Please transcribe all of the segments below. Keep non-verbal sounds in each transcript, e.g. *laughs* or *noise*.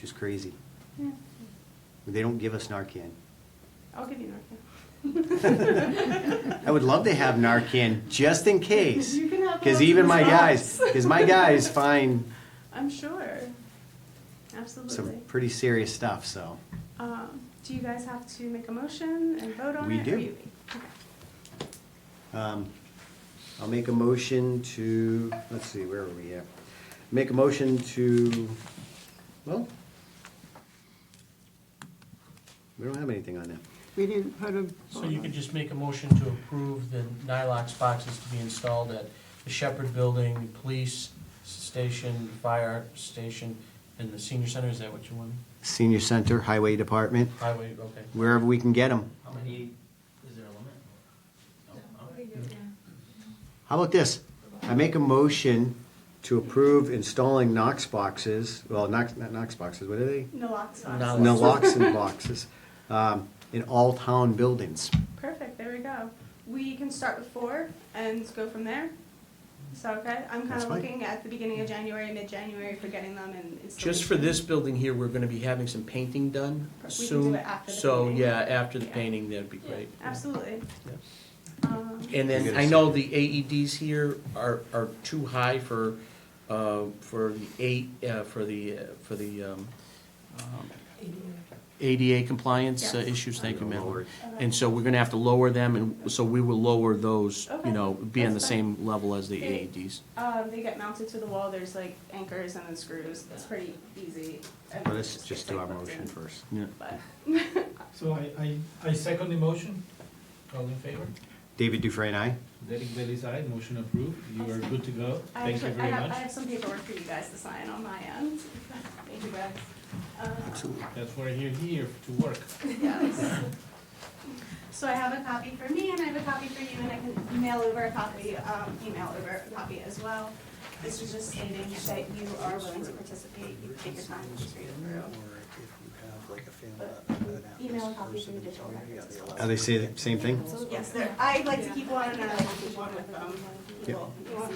Just crazy. Yeah. They don't give us Narcan. I'll give you Narcan. *laughs* I would love to have Narcan just in case. You can have Because lots even of my guys, shots. because my *laughs* guys find I'm sure. Absolutely. some pretty serious stuff, so. Um, do you guys have to make a motion and vote on We it? or do. you- okay. um, I'll make a motion to, let's see, where are we at? Make a motion to, well, we don't have anything on that. We didn't put a. So you can just make a motion to approve the Nylox boxes to be installed at the Shepherd Building, the police station, fire station, and the senior center, is that what you want? Senior Center, Highway Department, Highway, okay. wherever we can get them. How many, is there a limit? How about this? I make a motion to approve installing Knox boxes, well, Knox, not Knox boxes, what are they? Naloxone. *laughs* Naloxone. Naloxone boxes, um, in all town buildings. Perfect, there we go. We can start with four and go from there. Is that okay? I'm kind That's of fine. looking at the beginning of January, mid-January for getting them and installation. Just for this building here, we're gonna be having some painting done We can do soon. it after the So, painting. yeah, after the Yeah. painting, that'd be great. Absolutely. Um, And We'll then, get a I know the AEDs here are, are too high for, uh, for the eight, uh, for the, uh, for the, um, um, ADA compliance uh, Yes. issues, thank you, Lower ma'am. it. And so we're gonna have to lower them, and so we will lower those, Okay, you know, be on the that's fine. same level as the E Okay. AEDs. Um, they get mounted to the wall, there's like anchors and then screws, it's pretty easy. Well, Let's just do our motion first. Yeah. But, So I, I, I second the motion. All in favor? David Dufresne, aye? Derek Bailey's aye, motion approved. You are good to go. I Thank you actually- I very have, I much. have some paperwork for you guys to sign on my end. *laughs* Thank you guys. Uh, *laughs* That's why you're here, to work. yes. So I have a copy for me and I have a copy for you and I can mail over a copy, um, email over a copy as well. This is just stating that you are willing to participate, you can take your time and just read it through. Email a copy for the digital records as well. Are they say the same thing? Yes, there, I like to keep one and I like to keep one with them. Yep. Well, you want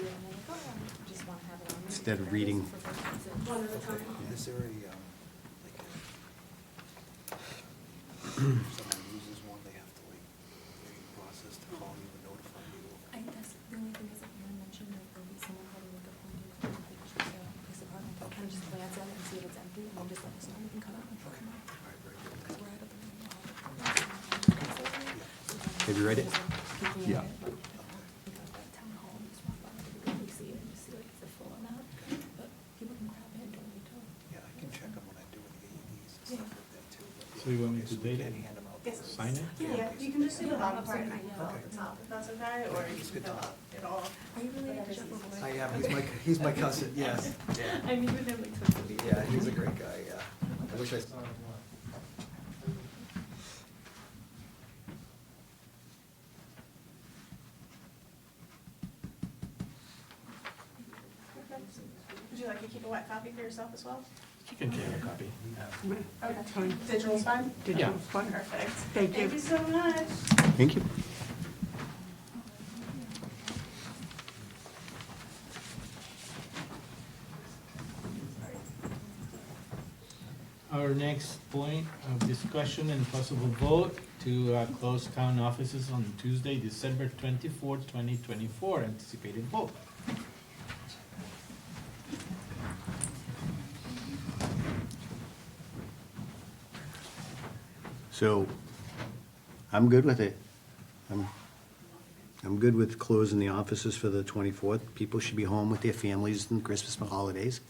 Instead of reading. One at a time. Is there a, um, like a, if someone uses one, they have to like, wait a process to call you and notify I you? guess the only thing is that you mentioned that there'll be someone probably with a phone booth in the police department. I'll kind of just glance at it and see if it's empty and then just let us know we can come out and pick them up. All right, very good. Because we're out of the room. Have you read it? Yeah. Town hall, just walk by, we see it and just see like it's a full amount. But people can grab it, don't need to. Yeah, I can check them when I do the AEDs and Yeah. stuff like that too. but So you want me yeah, we to date can it? hand 'em out Yes. first. Sign it? Yeah, you can just do the bottom part and I can fill out Okay. the top if that's okay, or you can fill out it all. Are you really a shuffle boy? I *laughs* am, he's my, he's my cousin, yes. *laughs* I mean, with them like totally. Yeah, he's a great guy, yeah. I wish I saw him. Would you like to keep a wet copy for yourself as well? You can take a copy. Okay. Digital's fine? Digital fund. Perfect. Thank you. Thank you so much. Thank you. Our next point of discussion and possible vote to uh, close town offices on Tuesday, December twenty-fourth, twenty twenty-four, anticipated vote. So, I'm good with it. I'm, I'm good with closing the offices for the twenty-fourth. People should be home with their families and Christmas and holidays.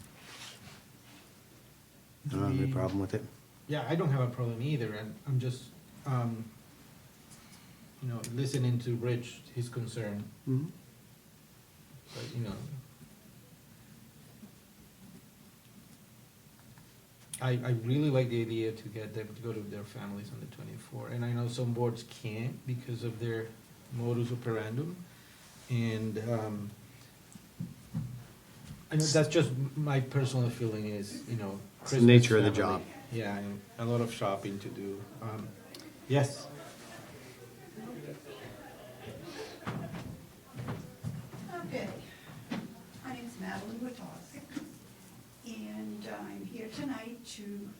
I don't have any problem with it. Yeah, I don't have a problem either, and I'm just, um, you know, listening to Rich, his concern, Mhm. but, you know. I, I really like the idea to get them to go to their families on the twenty-four, and I know some boards can't because of their modus operandum, and, um, I know that's just m- my personal feeling is, you know. It's the Christmas nature of the family. job. Yeah, and a lot of shopping to do, um, yes. Okay. My name's Madeline Witowski, and I'm here here tonight to